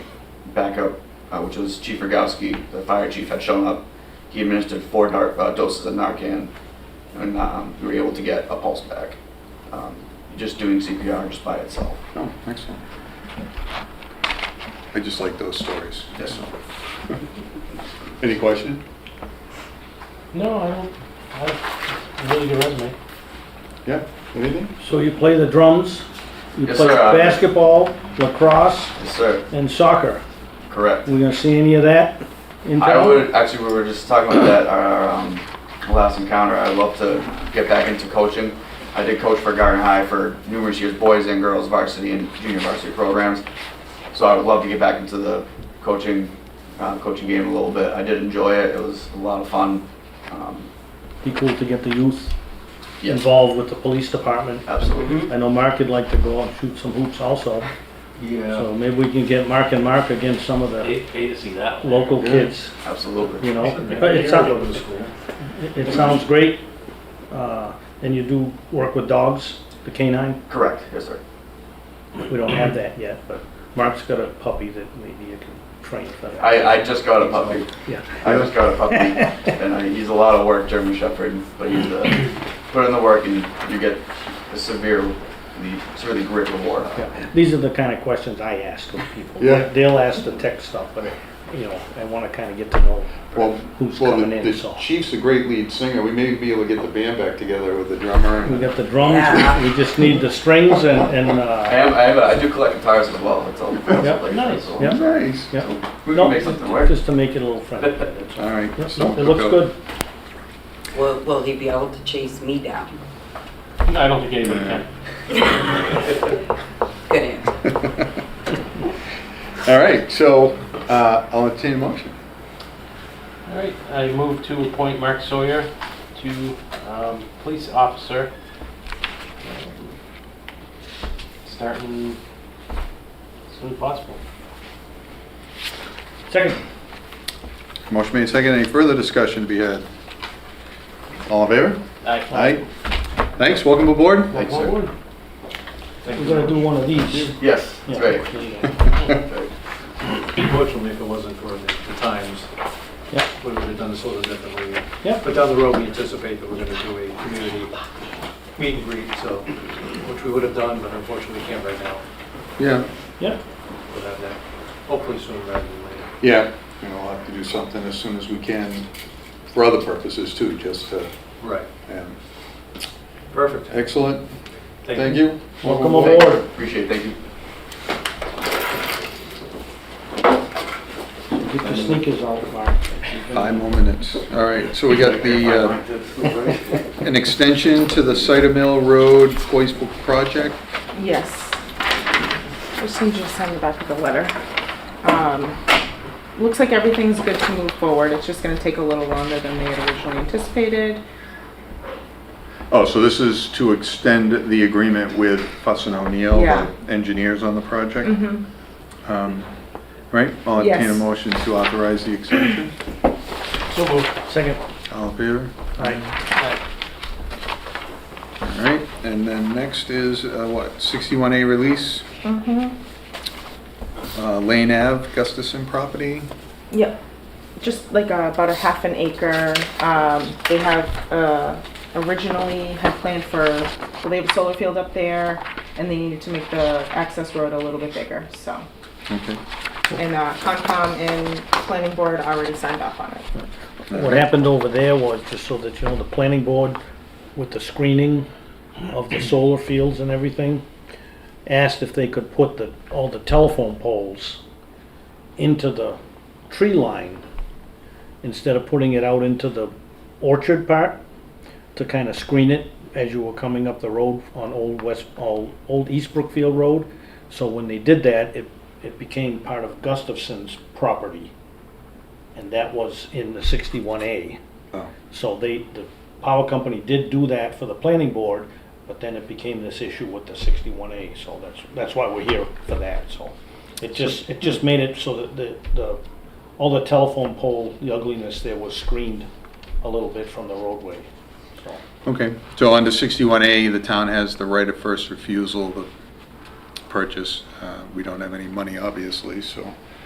backup, uh, which was Chief Rogowski, the fire chief, had shown up. He administered four nar- uh, doses of Narcan, and um, we were able to get a pulse back. Um, just doing CPR just by itself. Oh, excellent. I just like those stories. Yes. So. Any question? No, I don't. I have a really good resume. Yeah, anything? So you play the drums, you Yes, play sir, I- basketball, lacrosse, Yes, sir. and soccer. Correct. We gonna see any of that in I town? would actually. We were just talking about that our um, last encounter. I'd love to get back into coaching. I did coach for Garden High for numerous years, boys and girls varsity and junior varsity programs. So I would love to get back into the coaching uh, coaching game a little bit. I did enjoy it. It was a lot of fun. Um, Be cool to get the youth yes, involved with the police department. absolutely. I know Mark would like to go and shoot some hoops also, Yeah. so maybe we can get Mark and Mark against some of the Pay, pay to see that. one. local kids, Absolutely. you know? But Maybe it Go to sounds, the school. it it sounds great, uh, and you do work with dogs, the canine? Correct. Yes, sir. We don't have that yet, but Mark's got a puppy that maybe you can train for that. I, I just got a puppy. Yeah. I just got a puppy, and I, he's a lot of work, German Shepherd, but he's uh, put in the work, and you get a severe, the severely great reward. out of it. Yeah, These are the kind of questions I ask of people. Yeah. They'll ask the tech stuff, but, you know, I want to kind of get to know Well, who's well, the- coming in, The so. chief's a great lead singer. We may be able to get the band back together with the drummer. We and- got the drums, we- we just need the strings and, and, I uh, am, I have, a- I do collect guitars as well. That's all. Yeah, nice, So yeah. Nice. yeah. We No, can make something work. Just to make it a little friendly. that's all. All right. Yep, so no, It looks we'll good. Will, will he be able to chase me down? I don't think anybody can. Good answer. All right, so uh, I'll entertain a motion. All right, I move to appoint Mark Sawyer to um, police officer. um, Starting as soon as possible. Second, Motion made second. Any further discussion to be had? All in favor? Aye. Thanks, welcome aboard. Thanks, Well, sir. well, we're gonna do one of these. Yes, that's Yeah. right. Okay. Unfortunately, if it wasn't for the the times, Yeah. we would have done this a little differently. Yeah. But down the road, we anticipate that we're gonna do a community meet and greet, so, which we would have done, but unfortunately, we can't right now. Yeah, Yeah, We'll have that hopefully sooner rather than later. yeah, you know, we'll have to do something as soon as we can for other purposes too, just to, Right. um, Perfect. excellent, thank you. welcome aboard. Appreciate it. Thank you. Get your sneakers out, Mark. Five more minutes. All right, so we got the, uh, an extension to the Cider Mill Road Voice Book project. Yes. Just need you to send the back of the letter. Um, Looks like everything's good to move forward. It's just gonna take a little longer than they had originally anticipated. Oh, so this is to extend the agreement with Fuss and O'Neill, Yeah. the engineers on the project? Mm-hmm. Um, Right, I'll entertain a Yes. motion to authorize the extension. So moved. Second, All in favor? aye. All right, and then next is, uh, what, 61A release, Mm-hmm. uh, Lane Ave, Gustafson property? Yep. Just like uh, about a half an acre. Um, they have uh, originally had planned for, well, they have a solar field up there and they needed to make the access road a little bit bigger, so. Okay. And uh, Concom and Planning Board already signed off on it. What happened over there was, just so that you know, the planning board with the screening of the solar fields and everything, asked if they could put the, all the telephone poles into the tree line instead of putting it out into the orchard part to kind of screen it as you were coming up the road on Old West, Old Old East Brookfield Road. So when they did that, it, it became part of Gustafson's property. And that was in the sixty-one A. Oh, So they, the power company did do that for the planning board, but then it became this issue with the sixty-one A, so that's, that's why we're here for that, so. It just, it just made it so that the, the, all the telephone pole, the ugliness there was screened a little bit from the roadway, so. Okay, so under 61A, the town has the right of first refusal to purchase. Uh, We don't have any money, obviously, so